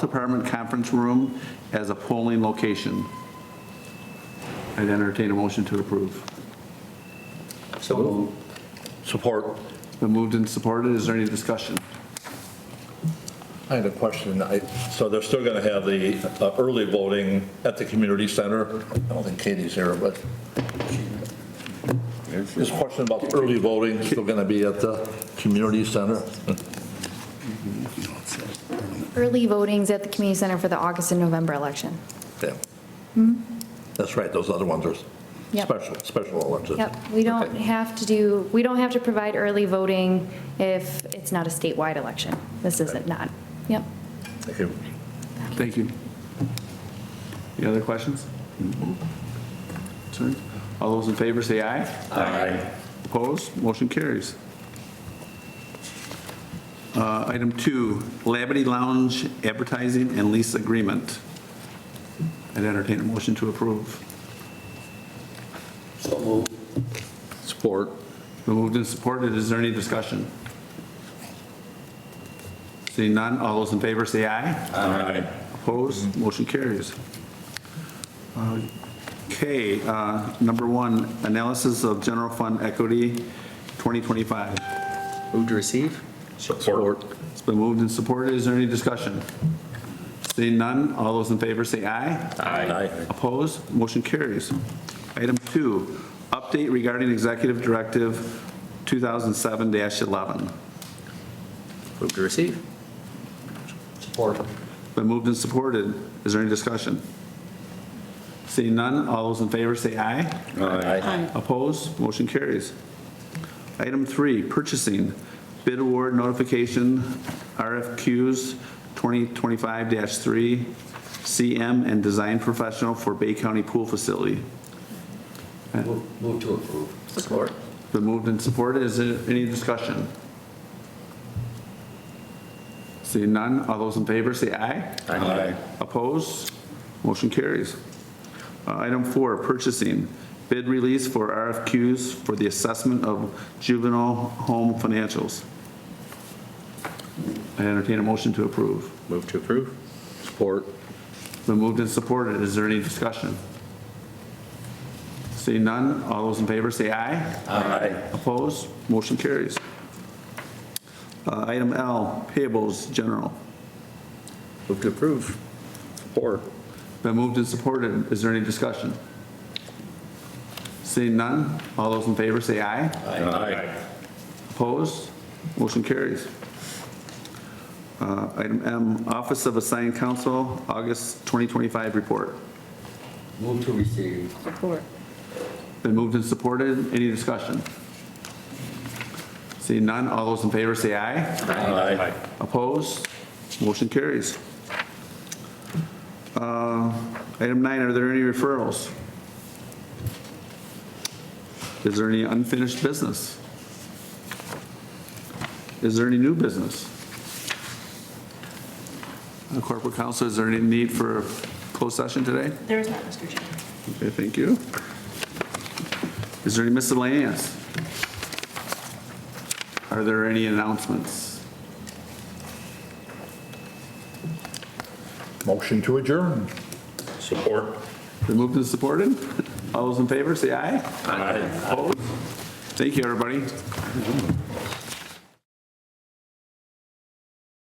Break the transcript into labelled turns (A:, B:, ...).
A: Department Conference Room as a polling location. I'd entertain a motion to approve.
B: So moved. Support.
A: Been moved and supported, is there any discussion?
C: I had a question. I- So they're still going to have the uh, early voting at the community center? I don't think Katie's here, but this question about the early voting is still going to be at the community center?
D: Early voting's at the community center for the August and November election.
C: Yeah. That's right, those other ones are
D: Hmm? Yep.
C: special, special elections.
D: Yep, we don't
C: Okay.
D: have to do, we don't have to provide early voting if it's not a statewide election. This isn't not, yep.
C: Thank you.
A: Thank you. Any other questions? Concerns? All those in favor say aye. Aye. Opposed, motion carries. Uh, Item two, Labadee Lounge advertising and lease agreement. I'd entertain a motion to approve.
B: So moved. Support.
A: Been moved and supported, is there any discussion? Seeing none, all those in favor say aye.
B: Aye.
A: Opposed, motion carries. Uh, Okay, uh, number one, analysis of general fund equity 2025.
B: Move to receive? Support.
A: It's been moved and supported, is there any discussion? Seeing none, all those in favor say aye.
B: Aye.
A: Opposed, motion carries. Item two, update regarding Executive Directive 2007-11.
B: Move to receive? Support.
A: Been moved and supported. Is there any discussion? Seeing none, all those in favor say aye.
B: Aye.
A: Opposed? Motion carries. Item three, purchasing, bid award notification, RFQs 2025-3, CM and design professional for Bay County Pool Facility.
B: Move to approve. Support.
A: Been moved and supported. Is there any discussion? Seeing none, all those in favor say aye.
B: Aye.
A: Opposed? Motion carries. Uh, Item four, purchasing. Bid release for RFQs for the assessment of juvenile home financials. I entertain a motion to approve.
B: Move to approve? Support.
A: Been moved and supported. Is there any discussion? Seeing none, all those in favor say aye.
B: Aye.
A: Opposed? Motion carries. Uh, Item L, payables general.
B: Move to approve? Support.
A: Been moved and supported. Is there any discussion? Seeing none, all those in favor say aye.
B: Aye.
A: Opposed? Motion carries. Uh, Item M, Office of Assigned Counsel, August 2025 report.
B: Move to receive?
D: Support.
A: Been moved and supported. Any discussion? Seeing none, all those in favor say aye.
B: Aye.
A: Opposed? Motion carries. Uh, Item nine, are there any referrals? Is there any unfinished business? Is there any new business? Uh, Corporate counsel, is there any need for a closed session today?
E: There is not, Mr. Chairman.
A: Okay, thank you. Is there any miscellaneous? Are there any announcements?
C: Motion to adjourn.
B: Support.
A: Been moved and supported? All those in favor, say aye.
B: Aye.
A: Opposed? Thank you, everybody.